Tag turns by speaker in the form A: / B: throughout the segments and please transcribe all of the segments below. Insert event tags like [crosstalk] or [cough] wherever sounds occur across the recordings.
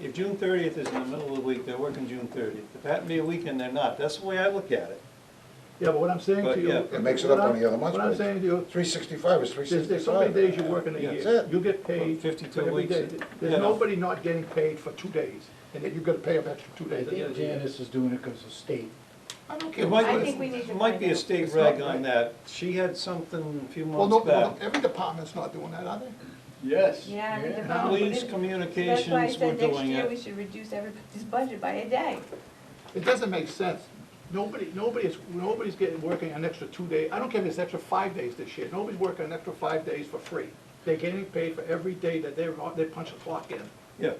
A: If June thirtieth is in the middle of the week, they're working June thirtieth. If that be a weekend, they're not. That's the way I look at it.
B: Yeah, but what I'm saying
A: But,
B: to you.
A: yeah.
C: It makes it up
B: what
C: on
B: I'm-
C: the other month's
B: What I'm
C: page.
B: saying to you,
C: Three sixty-five is three
B: there's,
C: sixty-five.
B: there's so many days you work in a
C: That's
B: year.
C: it.
B: You get paid.
A: 52
B: for every
A: weeks.
B: day. There's
A: Yeah.
B: nobody not getting paid for two days, and then you've gotta pay them extra two
D: I
B: days.
D: think Janice is doing it because of state.
C: I don't care.
A: It
C: what
A: might,
E: I
C: it is.
E: think we need to
A: it might be a
E: find out.
A: state
B: It's not
A: reg on
B: right.
A: that. She had something a few
B: Well, no,
A: months
B: well,
A: back.
B: every department's not doing that, are they?
D: Yes.
E: Yeah, I mean, the
B: no.
E: problem
A: Police
E: is, that's
A: communications
E: why I
A: were
E: said next
A: doing
E: year we
A: it.
E: should reduce everybody's budget by a day.
B: It doesn't make sense. Nobody, nobody's, nobody's getting, working an extra two day, I don't care if it's extra five days this year, nobody's working an extra five days for free. They're getting paid for every day that they're, on- they punch the clock in.
A: Yeah.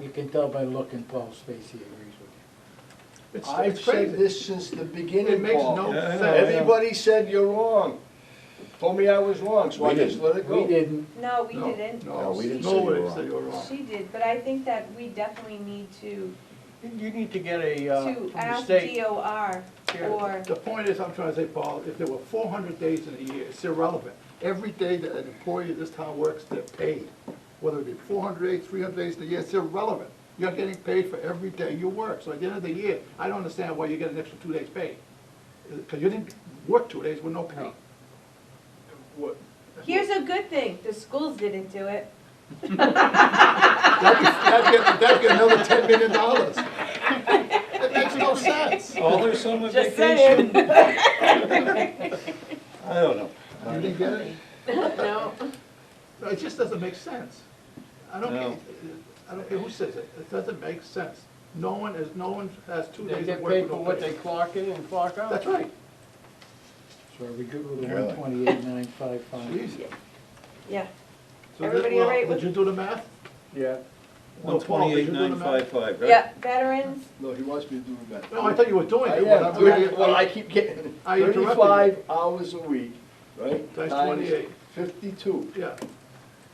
D: You can tell by looking, Paul Stacy agrees with
B: It's
F: I've
B: it's
F: said
B: crazy.
F: this since the
B: It
F: beginning,
B: makes
F: Paul.
B: no
A: Yeah, I know.
B: sense.
F: Everybody said you're wrong. Told me I was wrong, so I
C: We
F: just let it
D: you. We
F: go.
D: didn't,
E: No, we
B: No,
E: didn't.
C: No, we didn't say you were
B: Nobody
C: wrong.
B: said you were wrong.
E: She did, but I think that we definitely need to,
F: You need to get a, uh, from
E: to
F: the
E: ask
F: state.
E: DOR
F: Yeah.
E: or,
B: The point is, I'm trying to say, Paul, if there were four hundred days in a year, it's irrelevant. Every day that an employee of this town works, they're paid. Whether it be four hundred days, three hundred days in a year, it's irrelevant. You're getting paid for every day you work. So at the end of the year, I don't understand why you get an extra two days pay. Because you didn't work two days with no pay.
F: What-
E: here's a good thing, the schools didn't do it.
B: That'd get, that'd get another ten million dollars. It makes no sense.
E: [laughs]
A: All her summer
E: Just
A: vacation.
F: [laughs]
A: I don't know.
B: You didn't get it?
E: No.
B: No, It just doesn't make sense. I don't
A: No.
B: care, I don't care who says it, it doesn't make sense. No one is, no one has two
F: They
B: days of
F: get
B: work.
F: paid
B: with
F: for
B: no
F: what
B: pay.
F: they clock in and clock out.
B: That's right.
D: so are we good with the
C: Really?
D: one twenty-eight, nine, five, five?
B: Jeez.
E: Yeah,
B: So did-
E: Everybody
B: well,
E: all right
B: Did
E: with-
B: you do the math?
F: Yeah,
A: One
B: No, Paul, did
A: twenty-eight,
B: you do the
A: nine
B: math?
A: five five, right?
E: yeah, veterans,
F: no, he wants me to do it better.
B: No, I thought you were doing
F: I
B: it.
F: am,
B: but I'm-
F: doing- well, I keep getting
B: [laughs] I interrupted you.
F: thirty-five hours a week, right?
B: Times 28.
F: Fifty-two,
B: Yeah,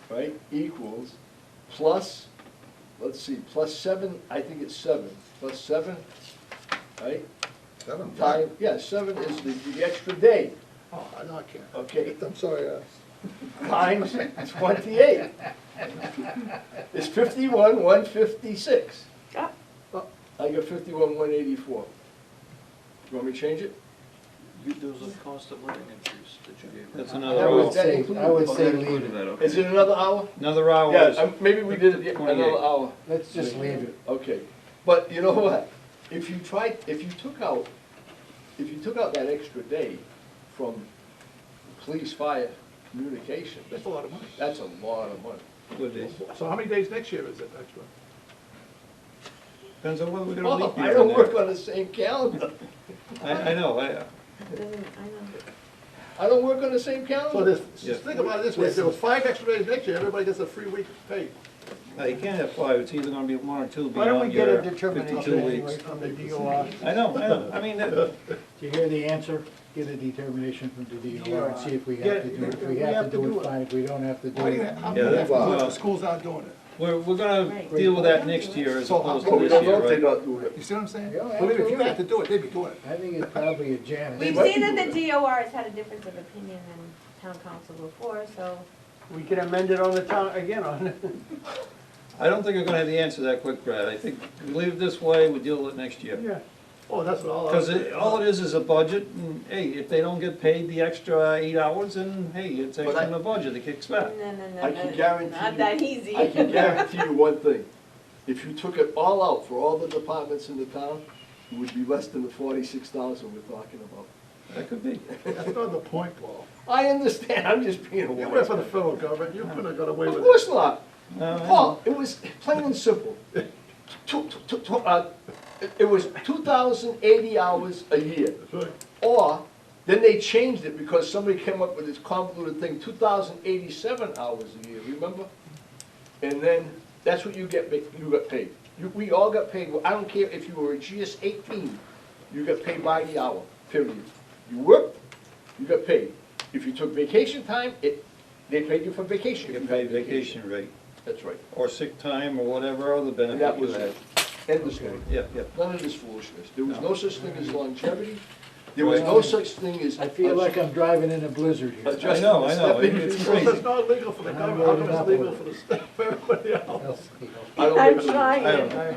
F: right, equals, plus, let's see, plus seven, I think it's seven, plus seven, right?
C: Seven.
F: Time, yeah, seven is the, the extra day,
B: oh, I know, I can't.
F: okay,
B: I'm sorry, uh,
F: times twenty-eight. It's fifty-one, one fifty-six.
E: oh,
F: I got fifty-one, one eighty-four. You want me to change it?
G: There was a cost of living increase that you gave.
A: That's
D: I
A: another
D: would
A: hour.
F: was-
D: say, I would
G: Oh,
D: say
G: that included
D: leave it,
G: that, okay.
F: Is it another hour?
A: Another hour
F: Yeah,
A: is,
F: um, maybe we did it yeah,
A: 28.
F: another hour.
D: let's just leave it.
F: Okay, but you know what? If you tried, if you took out, if you took out that extra day from police, fire, communication,
B: that's a lot of money.
F: that's a lot of money.
A: what it is.
B: So how many days next year is it, extra?
A: depends on whether we're gonna
F: Well,
A: leave
F: Oh, I
A: here or
F: don't work
A: not.
F: on the same calendar.
A: I, I know, I,
E: doesn't, I know.
F: I don't work on the same
B: So
F: calendar.
B: this, just think about it this way, if there was five extra days next year, everybody gets a free week pay.
A: I you can't have five. It's either gonna be one or two
D: Why don't we
A: beyond
D: get a
A: your fifty-two
D: determination
A: weeks.
D: anyway from the DOR?
A: I know, I know. I mean, that-
D: Do you hear the answer? Get a determination from the DOR and see if we
B: Yeah,
D: have to do it. If
B: we
D: we
B: have
D: have to
B: to
D: do
B: do
D: it,
B: it.
D: fine. If we don't have to do
B: Why do you,
D: it.
B: how many
A: Yeah,
B: have to do it?
A: well-
B: The school's not doing it.
A: We're, we're gonna
E: Right.
A: deal with that next year as
B: So,
A: opposed
B: well,
A: to
F: But we
A: this
F: don't know
A: year,
F: if they're
A: right?
F: not doing it.
B: You see what I'm saying?
D: Yeah,
B: Believe me, if you
D: absolutely.
B: had to do it, they'd be doing it.
D: I think it's probably a Janice.
E: We've
F: might
E: seen
F: be
E: that
F: doing
E: the DOR has had a difference of opinion than town council before, so.
F: We can amend it on the town, again, on.
A: I don't think we're gonna have the answer that quick, Brad. I think we leave it this way, we deal with it next year.
B: Yeah. Oh, that's what all. I was
A: Because it, all it is is a budget, and hey, if they don't get paid the extra eight hours, then hey, it's
F: But
A: extra
F: I-
A: in the budget, it kicks
E: No,
A: back.
E: no, no,
F: I can
E: no,
F: guarantee
E: Not
F: you-
E: that easy.
F: I
E: [laughs]
F: can guarantee you one thing, if you took it all out for all the departments in the town, it would be less than the forty-six thousand we're talking about.
A: That could be.
B: That's not the point, Paul.
F: I understand, I'm just being a
B: You work
F: wise
B: for the
F: guy.
B: federal government, you couldn't have got away
F: Of
B: with
F: course
B: it.
F: not.
A: No, I
F: Paul, it was plain and simple. Two- two- two- two- uh, it- It was two thousand eighty hours a year.
B: That's right.
F: Or, then they changed it because somebody came up with this convoluted thing, two thousand eighty-seven hours a year, remember? And then, that's what you get, ba- you got paid. You, we all got paid, I don't care if you were a GS eighteen, you got paid by the hour, period. You worked, you got paid. If you took vacation time, it, they paid you for vacation.
A: You
F: if
A: get
F: had
A: paid vacation rate,
F: That's right.
A: or sick time, or whatever other
F: And that
A: benefit you
F: was
A: had.
F: it. End of story.
A: Yeah, yeah.
F: None of this foolishness. There was no such thing as longevity. There was no such thing as.
D: I feel like I'm driving in a blizzard
F: Uh,
D: here.
F: just-
A: I know, I know, it- it's
B: Well,
A: crazy.
B: it's not legal for the
D: I'm
B: government, how come
D: loading up
B: it's
D: with
B: legal
D: it.
B: for the state, for everybody else?
D: That's-
F: [laughs] I don't
E: I'm
F: think so.
E: trying.
A: I don't know.